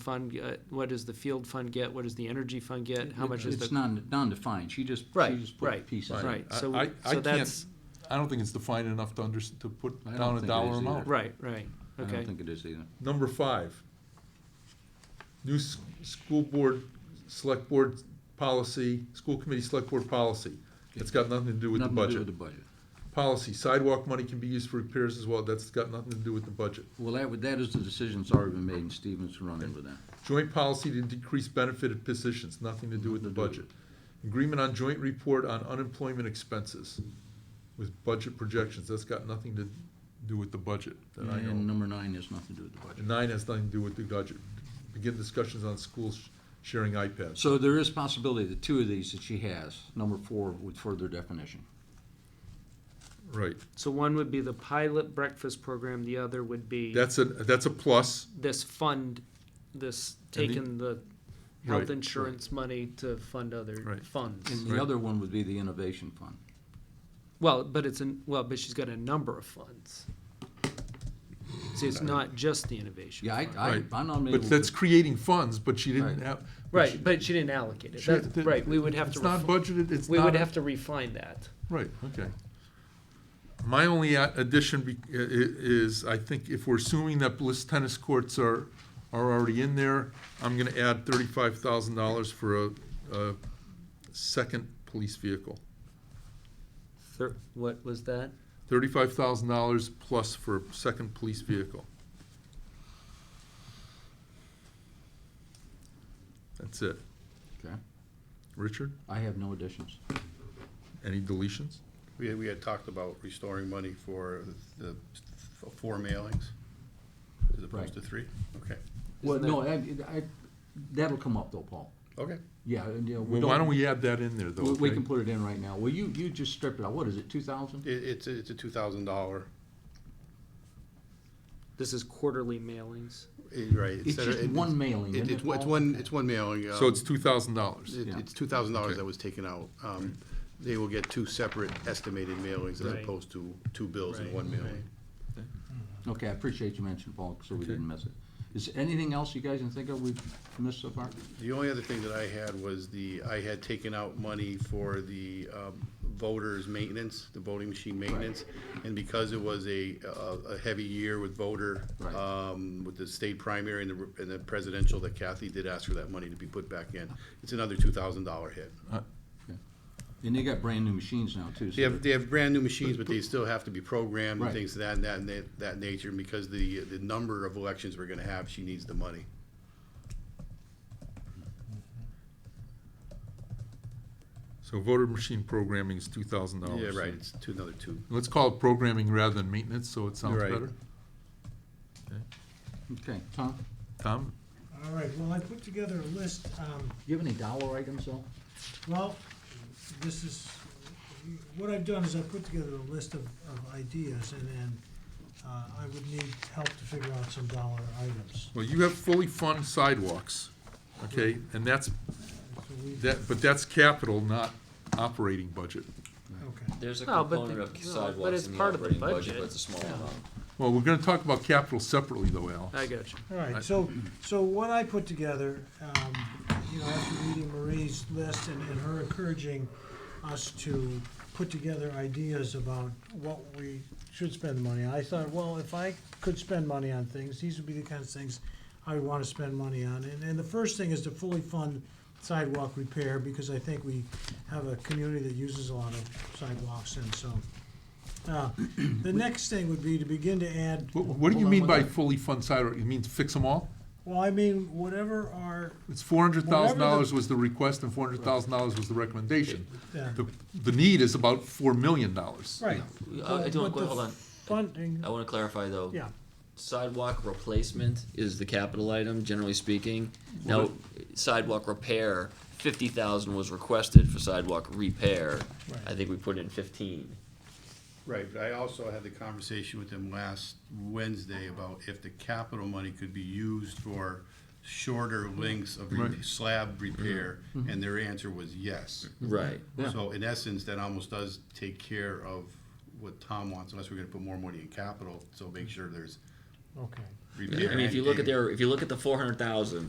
fund, get? what does the field fund get, what does the energy fund get, how much is It's the? non, non-defined, she just, she Right, just put right, pieces. in. right, I- so, I- we- I so can't- that's, I don't think it's defined enough to under, to put I don't down a think it dollar is either. amount. right, right, I okay. don't think it is either. Number five, new s- school board, select board policy, school committee select board policy. It's got nothing to do with the Nothing to do budget. With the budget. Policy, sidewalk money can be used for repairs as well, that's got nothing to do with the budget. Well, that, would- that is the decision that's already been made, and Stevens running with that. Joint policy to decrease benefited positions, nothing to do with the budget. Agreement on joint report on unemployment expenses with budget projections, that's got nothing to do with the budget that I know of. And number nine has nothing to do with the budget. And nine has nothing to do with the budget. Begin discussions on schools sharing iPads. So there is possibility that two of these that she has, number four with further definition. Right. So one would be the pilot breakfast program, the other would be That's a, that's a plus. this fund, this, the- taking the Right, health right. insurance money to fund other Right. funds. And the Right. other one would be the innovation fund. Well, but it's an, well, but she's got a number of funds. See, it's not just the innovation. Yeah, I, fund. I, Right. I'm not able But that's to. creating funds, but she didn't Right. have. Right, but she didn't allocate it, Sure, That's- th- right, we would have to. It's not refi- budgeted, it's We not, would have to refine that. right, okay. My only a- addition be- i- i- is, I think if we're assuming that Bliss tennis courts are, are already in there, I'm gonna add thirty-five thousand dollars for a, a second police vehicle. Thir- what was that? Thirty-five thousand dollars plus for a second police vehicle. That's it. Okay. Richard, I have no additions. any deletions? We had, we had talked about restoring money for the f- four mailings as opposed to three? Okay, Well, Isn't no, I, I, that'll come up though, Paul. okay. Yeah, and, you know, we Well, don't. why don't we add that in there, though? We, we okay? can put it in right now. Well, you, you just stripped it out. What is it, two thousand? It, it's, a- it's a two thousand dollar, This is quarterly mailings. eh, right. It's instead of- just one mailing, It, isn't it's, it, one- it's Paul? one, it's one mailing. So um, it's two thousand dollars? it- Yeah. It's two thousand dollars Okay. that was taken out. Um, they will get two separate estimated mailings as Right. opposed to two bills in Right, one mailing. Okay, I appreciate you mentioning Paul, so we didn't miss it. Is there anything else you guys can think of we've missed so far? The only other thing that I had was the, I had taken out money for the um, voters' maintenance, the voting machine maintenance. And because it was a, a a heavy year with voter, Right. um, with the state primary and the, and the presidential, that Kathy did ask for that money to be put back in. It's another two thousand dollar hit. And they got brand-new machines now, too. so They have, they have brand-new machines, but they still have to be programmed and Right. things of that, and that, and that- that nature. And because the, the number of elections we're gonna have, she needs the money. So voter machine programming is two thousand Oh, dollars? Yeah, right, it's two, another two. Let's call it programming rather than maintenance, so it sounds Right. better. Okay, Tom, Tom? All right, well, I put together a list, um, do you have any dollar items, though? well, this is, what I've done is I put together a list of, of ideas and then, uh, I would need help to figure out some dollar items. Well, you have fully funded sidewalks, okay, and that's, So we, that, but that's capital, not operating budget. okay, There's a Well, but component the- of well, but sidewalks it's in the part of the operating budget, budget. but it's a small amount. Well, we're gonna talk about capital separately, though, Al. I got you. all right, so, so what I put together, um, you know, after reading Marie's list and, and her encouraging us to put together ideas about what we should spend the money on, I thought, well, if I could spend money on things, these would be the kinds of things I would want to spend money on. And, and the first thing is to fully fund sidewalk repair, because I think we have a community that uses a lot of sidewalks, and so. uh, The next thing would be to begin to add. What, what do Hold you on mean one by second. fully fund sidewalk? You mean fix them all? Well, I mean, whatever our, It's four hundred thousand Whatever dollars the- was the request and four hundred thousand dollars was the recommendation. yeah, The, the need is about four million dollars. right. uh, I- I do want- But the hold on. Funding, I wanna clarify though. yeah, Sidewalk replacement is the capital item, generally speaking. Now, sidewalk repair, fifty thousand was requested for sidewalk repair. Right. I think we put in fifteen. Right, but I also had the conversation with them last Wednesday about if the capital money could be used for shorter lengths of re- Right. slab repair, and their answer was yes. Right. Yeah. So in essence, that almost does take care of what Tom wants, unless we're gonna put more money in capital, so make sure there's okay. I repair. mean, if you look at and- their, if you look at the four hundred thousand,